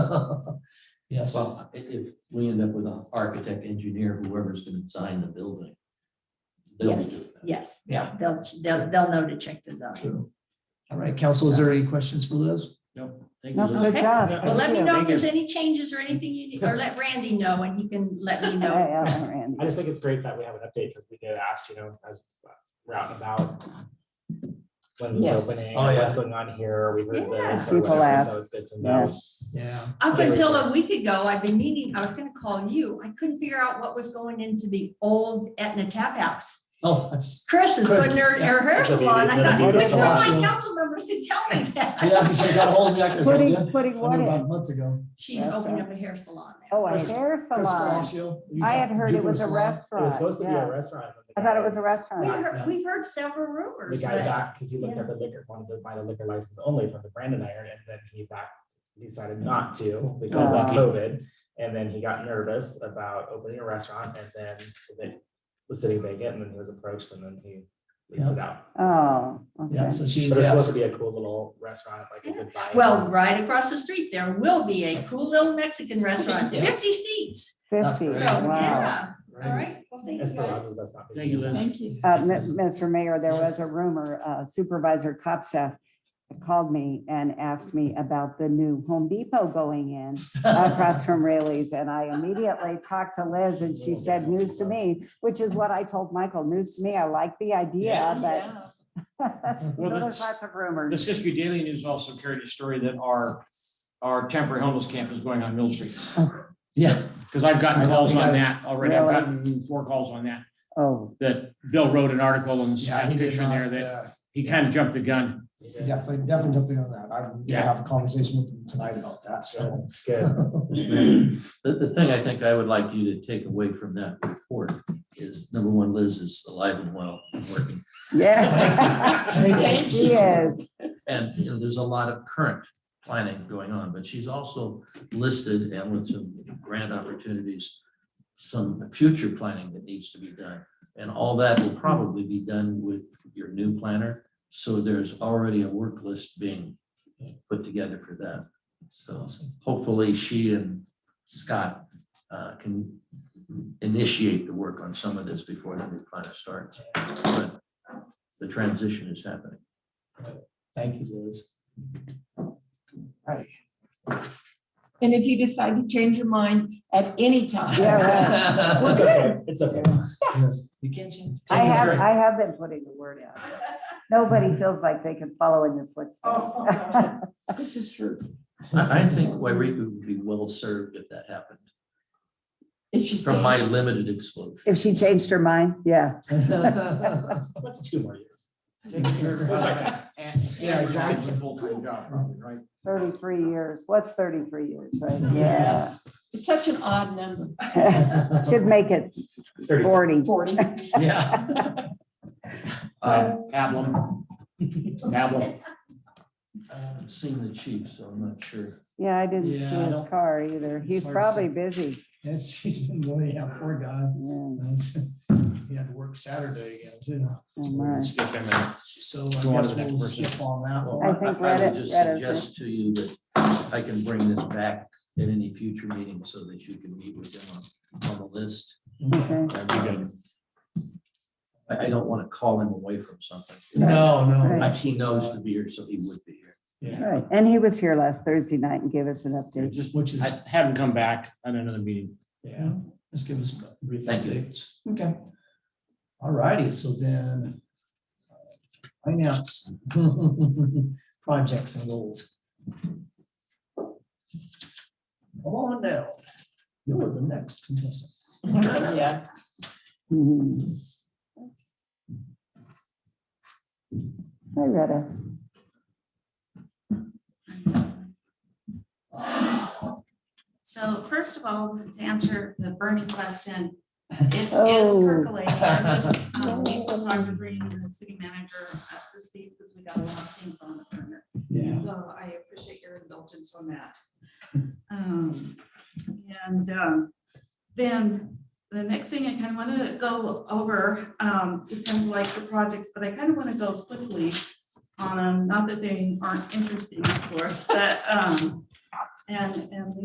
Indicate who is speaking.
Speaker 1: Yes,
Speaker 2: Well, i- if we end up with an architect, engineer, whoever's gonna design the building. they'll be
Speaker 3: Yes,
Speaker 2: doing that.
Speaker 3: yes.
Speaker 1: Yeah.
Speaker 3: They'll, they'll, they'll know to check the zone.
Speaker 1: true. All right, council, is there any questions for Liz?
Speaker 2: Nope. Thank you,
Speaker 4: No,
Speaker 2: Liz.
Speaker 4: good
Speaker 3: Okay.
Speaker 4: job.
Speaker 1: Well,
Speaker 3: Well, let me
Speaker 4: Good
Speaker 3: know
Speaker 4: job.
Speaker 3: if there's any changes or anything you need, or let Randy know and he can let me
Speaker 4: Yeah,
Speaker 3: know.
Speaker 4: yeah, Randy.
Speaker 5: I just think it's great that we have an update because we did ask, you know, as we're out and about. When this
Speaker 4: Yes.
Speaker 5: opening,
Speaker 1: Oh, yeah.
Speaker 5: what's going on here, we heard this.
Speaker 4: Yeah.
Speaker 5: or
Speaker 4: People
Speaker 5: whatever, So
Speaker 4: ask.
Speaker 5: it's good to know.
Speaker 1: Yeah,
Speaker 3: Up until a week ago, I've been meaning, I was gonna call you. I couldn't figure out what was going into the old Etna Tap House.
Speaker 1: oh, that's,
Speaker 3: Chris is
Speaker 1: Chris,
Speaker 3: putting her,
Speaker 1: yeah.
Speaker 3: her hair
Speaker 5: She'll be
Speaker 3: salon. I
Speaker 5: gonna
Speaker 3: thought,
Speaker 1: do the
Speaker 3: there's no
Speaker 1: salon.
Speaker 3: my council members can tell me
Speaker 1: yeah,
Speaker 3: that.
Speaker 1: because I got a hold of me, I could have told
Speaker 4: Putting,
Speaker 1: you.
Speaker 4: putting
Speaker 1: I
Speaker 4: what
Speaker 1: knew about
Speaker 4: in?
Speaker 1: months ago.
Speaker 3: She's opened up a hair salon there.
Speaker 4: Oh, a
Speaker 1: Chris-
Speaker 4: hair
Speaker 1: Chris
Speaker 4: salon.
Speaker 1: Falacio,
Speaker 4: I had heard it
Speaker 1: Jupiter
Speaker 4: was a
Speaker 1: Salon.
Speaker 5: It
Speaker 4: restaurant.
Speaker 5: was supposed to be
Speaker 4: yeah.
Speaker 5: a restaurant. but the
Speaker 4: I thought it
Speaker 5: guy-
Speaker 4: was a
Speaker 3: We
Speaker 4: restaurant.
Speaker 3: heard, we've heard several rumors,
Speaker 5: The guy
Speaker 3: but
Speaker 5: got, because he looked up the liquor, wanted to buy the liquor license only from the Brandon Iron, and then he backed, decided not to because of
Speaker 4: Oh.
Speaker 5: COVID. And then he got nervous about opening a restaurant and then it was sitting vacant and then he was approached and then he leased it out.
Speaker 4: Oh, okay.
Speaker 1: Yeah, so she's,
Speaker 5: But it's
Speaker 1: yeah,
Speaker 5: supposed to be a cool little restaurant, like a good vibe.
Speaker 3: well, right across the street, there will be a cool little Mexican restaurant,
Speaker 1: Yes.
Speaker 3: fifty seats.
Speaker 1: That's
Speaker 4: Fifty,
Speaker 3: So,
Speaker 1: great.
Speaker 4: wow.
Speaker 3: yeah, all right. Well, thank you guys.
Speaker 5: Esperanza's best not. to-
Speaker 2: Thank you, Liz.
Speaker 3: Thank you.
Speaker 4: Uh, Mi- Mr. Mayor, there
Speaker 1: Yes.
Speaker 4: was a rumor uh, Supervisor Kopseth called me and asked me about the new Home Depot going in across from Rayleigh's. And I immediately talked to Liz and she said, news to me, which is what I told Michael, news to me. I like the idea, but
Speaker 6: Well,
Speaker 4: So there's
Speaker 6: the
Speaker 4: lots of
Speaker 6: the
Speaker 4: rumors.
Speaker 6: Siskiyou Daily News also carried a story that our, our temporary homeless camp is going on Mill Street.
Speaker 1: yeah,
Speaker 6: Because I've
Speaker 1: I
Speaker 6: gotten
Speaker 1: don't
Speaker 6: calls
Speaker 1: think
Speaker 6: on
Speaker 1: I-
Speaker 6: that already. I've
Speaker 4: Really?
Speaker 6: gotten four calls on that,
Speaker 4: Oh,
Speaker 6: that Bill wrote an article and
Speaker 1: yeah.
Speaker 6: had
Speaker 1: he
Speaker 6: a
Speaker 1: did
Speaker 6: picture in
Speaker 1: not,
Speaker 6: there that
Speaker 1: yeah,
Speaker 6: he kind of jumped the gun.
Speaker 1: he Definitely, definitely jumping on that. I'm gonna
Speaker 6: Yeah.
Speaker 1: have a conversation with him tonight about that, so.
Speaker 5: Good.
Speaker 2: The, the thing I think I would like you to take away from that report is, number one, Liz is alive and well, and working.
Speaker 4: yeah. She is.
Speaker 2: And, you know, there's a lot of current planning going on, but she's also listed and with some grant opportunities, some future planning that needs to be done. And all that will probably be done with your new planner. So there's already a work list being put together for that. So
Speaker 1: Awesome.
Speaker 2: hopefully she and Scott uh, can initiate the work on some of this before the new planner starts. But The transition is happening.
Speaker 1: Thank you, Liz.
Speaker 7: And if you decide to change your mind at any time,
Speaker 4: Yeah, right.
Speaker 5: It's okay. It's okay.
Speaker 1: Yes, You can't change.
Speaker 4: I
Speaker 1: Take a
Speaker 4: have,
Speaker 1: break.
Speaker 4: I have been putting the word out. Nobody feels like they can follow in your
Speaker 7: Oh,
Speaker 4: footsteps.
Speaker 7: this is true.
Speaker 2: I, I think Wairika would be well served if that happened,
Speaker 7: If she's.
Speaker 2: from my limited exposure.
Speaker 4: If she changed her mind, yeah.
Speaker 5: What's two more years?
Speaker 1: Yeah, exactly.
Speaker 6: It's a Full-time job, probably, right?
Speaker 4: Thirty-three years. What's thirty-three years, right? Yeah.
Speaker 7: It's such an odd number,
Speaker 4: Should make it
Speaker 5: Thirty-six.
Speaker 4: forty.
Speaker 7: forty.
Speaker 1: Yeah.
Speaker 6: Uh, Pablum. Pablum.
Speaker 2: I haven't seen the chief, so I'm not sure.
Speaker 4: Yeah, I didn't see
Speaker 1: Yeah, I
Speaker 4: his
Speaker 1: don't-
Speaker 4: car either.
Speaker 1: hard to
Speaker 4: He's
Speaker 1: say.
Speaker 4: probably busy.
Speaker 1: It's, he's been, well, yeah, poor guy.
Speaker 4: Yeah, oh
Speaker 1: He had to work Saturday again too.
Speaker 4: my.
Speaker 6: Skip him and-
Speaker 1: So I
Speaker 6: Go on to
Speaker 1: guess
Speaker 6: the next
Speaker 1: we'll
Speaker 6: person.
Speaker 1: skip on that
Speaker 2: Well,
Speaker 1: one.
Speaker 4: I think
Speaker 2: I would
Speaker 4: Reddit-
Speaker 2: just
Speaker 4: Reddit's
Speaker 2: Suggest to you that I can bring this back at any future meeting so that you can meet with them on, on the list.
Speaker 4: Okay.
Speaker 2: Um, I, I don't want to call him away from something.
Speaker 1: No, no.
Speaker 4: Right.
Speaker 2: Like, He knows to be here, so he would be here.
Speaker 1: Yeah,
Speaker 4: Right. And he was here last Thursday night and gave us an
Speaker 6: I
Speaker 4: update.
Speaker 6: Just,
Speaker 1: which is,
Speaker 6: I have him come back on another meeting.
Speaker 1: yeah, just give us a brief
Speaker 2: Thank you.
Speaker 1: update. Okay. All righty, so then. uh, Finance. Projects and goals. Come on now. You're the next contestant.
Speaker 7: Yeah.
Speaker 4: Mhm. Hi, Retta.
Speaker 8: So first of all, to answer the burning question, it is
Speaker 4: Oh.
Speaker 8: percolating. I just um, need some time to bring the city manager up to speed because we got a lot of things on the burner.
Speaker 1: Yeah.
Speaker 8: So I appreciate your indulgence on that. Um, And um, then the next thing I kind of want to go over um, is kind of like the projects, but I kind of want to go quickly on them. Not that they aren't interesting, of course, but um, and, and